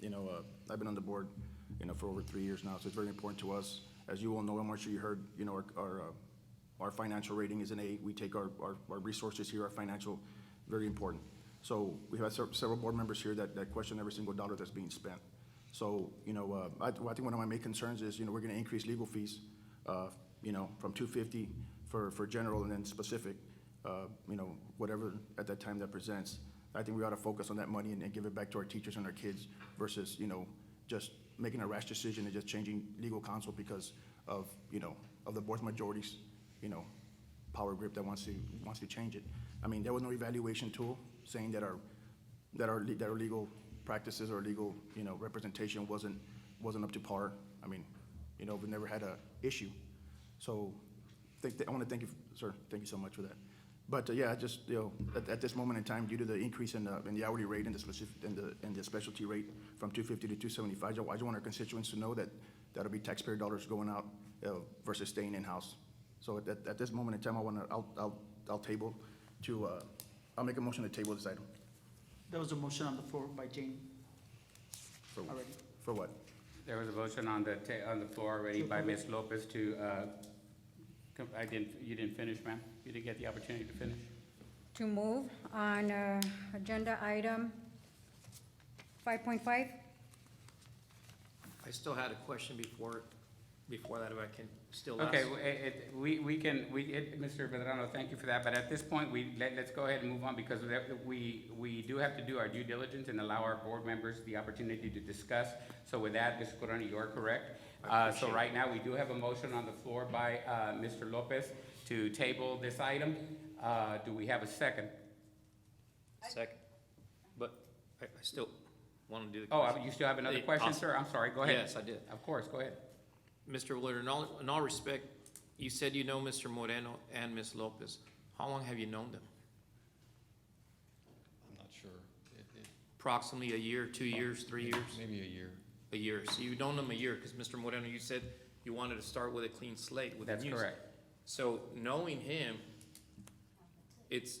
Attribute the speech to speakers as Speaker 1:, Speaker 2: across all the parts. Speaker 1: you know, uh, I've been on the board, you know, for over three years now, so it's very important to us. As you all know, I'm sure you heard, you know, our, our, uh, our financial rating is an A. We take our, our, our resources here, our financial, very important. So we have sev- several board members here that, that question every single dollar that's being spent. So, you know, uh, I, I think one of my main concerns is, you know, we're gonna increase legal fees, uh, you know, from two fifty for, for general and then specific, uh, you know, whatever at that time that presents. I think we ought to focus on that money and, and give it back to our teachers and our kids versus, you know, just making a rash decision and just changing legal counsel because of, you know, of the board's majorities, you know, power grip that wants to, wants to change it. I mean, there was no evaluation tool saying that our, that our, le- that our legal practices or legal, you know, representation wasn't, wasn't up to par. I mean, you know, we never had a issue. So, think, that- I want to thank you, sir, thank you so much for that. But, uh, yeah, I just, you know, at, at this moment in time, due to the increase in the, in the hourly rate and the specific, and the, and the specialty rate from two fifty to two seventy-five, I just want our constituents to know that that'll be taxpayer dollars going out uh, versus staying in-house. So at, at- at this moment in time, I want to, I'll, I'll, I'll table to, uh, I'll make a motion to table this item.
Speaker 2: There was a motion on the floor by Jane
Speaker 1: For what?
Speaker 2: already.
Speaker 1: For what?
Speaker 3: There was a motion on the ta, on the floor already by Ms. Lopez to, uh, com- I didn't, you didn't finish, ma'am? You didn't get the opportunity to finish?
Speaker 4: to move on uh, agenda item 5.5.
Speaker 5: I still had a question before, before that, if I can still ask.
Speaker 3: Okay, w- it, it, we, we can, we, it, Mr. Bedrano, thank you for that, but at this point, we, let, let's go ahead and move on because we have- we, we do have to do our due diligence and allow our board members the opportunity to discuss. So with that, Mr. Corona, you are correct. Uh, so right now, we do have a motion on the floor by, uh, Mr. Lopez to table this item. Uh, do we have a second?
Speaker 5: Second, but I, I still want to do the.
Speaker 3: Oh,
Speaker 5: question.
Speaker 3: uh, you still have another
Speaker 5: Yeah,
Speaker 3: question,
Speaker 5: awesome.
Speaker 3: sir? I'm sorry, go ahead.
Speaker 5: Yes, I did.
Speaker 3: Of course, go ahead.
Speaker 5: Mr. Willard, in all, in all respect, you said you know Mr. Moreno and Ms. Lopez. How long have you known them?
Speaker 6: I'm not sure. It- it-
Speaker 5: Approximately a year, two years, three years?
Speaker 6: Maybe a year.
Speaker 5: A year. So you've known them a year, because Mr. Moreno, you said you wanted to start with a clean slate with the
Speaker 3: That's
Speaker 5: music.
Speaker 3: correct.
Speaker 5: So knowing him, it's,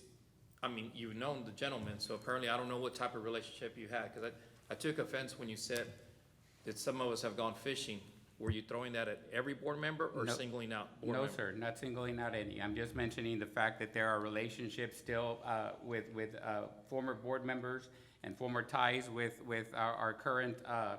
Speaker 5: I mean, you've known the gentleman, so apparently I don't know what type of relationship you had, because I, I took offense when you said that some of us have gone fishing. Were you throwing that at every board member or
Speaker 3: No.
Speaker 5: singling out? board
Speaker 3: No,
Speaker 5: member?
Speaker 3: sir, not singling out any. I'm just mentioning the fact that there are relationships still uh, with, with uh, former board members and former ties with, with our, our current, uh,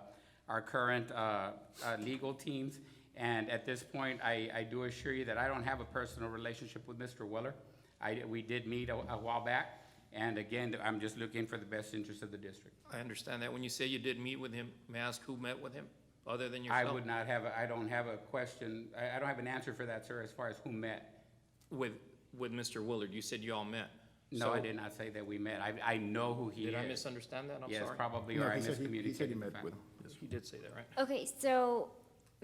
Speaker 3: our current uh, uh, legal teams. And at this point, I, I do assure you that I don't have a personal relationship with Mr. Weller. I, we did meet a a while back, and again, I'm just looking for the best interest of the district.
Speaker 5: I understand that. When you say you did meet with him, may I ask who met with him, other than
Speaker 3: I
Speaker 5: yourself?
Speaker 3: would not have, a- I don't have a question, I, I don't have an answer for that, sir, as far as who met.
Speaker 5: With, with Mr. Willard, you said you all met.
Speaker 3: No, I
Speaker 5: So-
Speaker 3: did not say that we met. I, I know who he is.
Speaker 5: Did I misunderstand that? I'm
Speaker 3: Yes,
Speaker 5: sorry.
Speaker 3: probably,
Speaker 1: No,
Speaker 3: or I
Speaker 1: he said he- He said he
Speaker 3: miscommunicated. the
Speaker 1: met with,
Speaker 3: fact.
Speaker 5: He did say that, right?
Speaker 7: Okay, so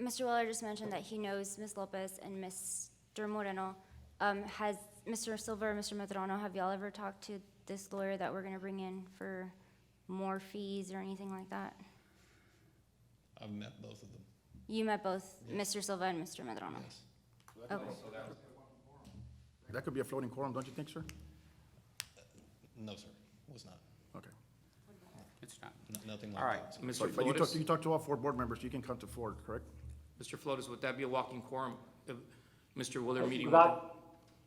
Speaker 7: Mr. Weller just mentioned that he knows Ms. Lopez and Mr. Moreno. Um, has Mr. Silver, Mr. Medrano, have y'all ever talked to this lawyer that we're gonna bring in for more fees or anything like that?
Speaker 6: I've met both of them,
Speaker 7: You met both Mr. Silva and Mr. Medrano?
Speaker 6: yes.
Speaker 7: Okay.
Speaker 1: that could be a floating quorum, don't you think, sir?
Speaker 6: No, sir, was not.
Speaker 1: Okay.
Speaker 3: It's not.
Speaker 6: N- Nothing
Speaker 3: All
Speaker 6: like
Speaker 3: right.
Speaker 6: that.
Speaker 5: Mr.
Speaker 1: But but you talked,
Speaker 5: Flores,
Speaker 1: you talked to all four board members, you can come to four, correct?
Speaker 5: Mr. Flores, would that be a walking quorum if Mr. Willard meeting with him?
Speaker 8: That,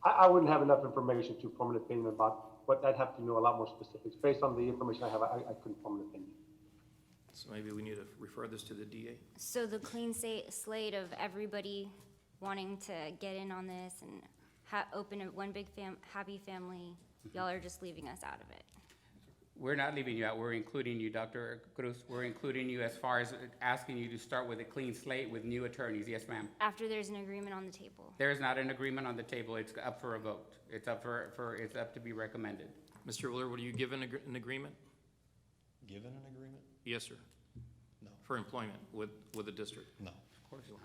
Speaker 8: I, I wouldn't have enough information to form an opinion about, but I'd have to know a lot more specifics. Based on the information I have, I, I couldn't form an opinion.
Speaker 5: So maybe we need to refer this to the DA?
Speaker 7: So the clean sa- slate of everybody wanting to get in on this and ha- open a one big fam- happy family,
Speaker 6: Mm-hmm.
Speaker 7: y'all are just leaving us out of it.
Speaker 3: We're not leaving you out. We're including you, Dr. Cruz. We're including you as far as asking you to start with a clean slate with new attorneys. Yes, ma'am.
Speaker 7: After there's an agreement on the table.
Speaker 3: There is not an agreement on the table. It's up for a vote. It's up for, for, it's up to be recommended.
Speaker 5: Mr. Willard, were you given an agr- an agreement?
Speaker 6: Given an agreement?
Speaker 5: Yes, sir.
Speaker 6: No.
Speaker 5: For employment with, with the district?
Speaker 6: No.
Speaker 3: Of course you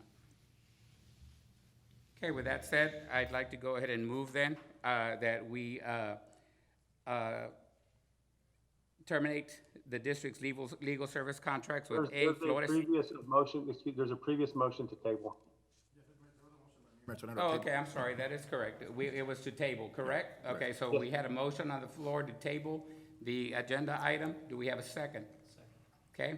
Speaker 3: Okay, with that said, I'd like to go ahead and move then, uh, that we, uh, uh, terminate the district's legal, legal service contracts with
Speaker 8: There's-
Speaker 3: A
Speaker 8: there's
Speaker 3: Flores.
Speaker 8: Previous motion, excuse, there's a previous motion to table.
Speaker 1: Mayor Tonello,
Speaker 3: Oh,
Speaker 1: table.
Speaker 3: okay, I'm sorry, that is correct. We, it was to table, correct? Okay, so we had a motion on the floor to table the agenda item. Do we have a second? Second. Okay,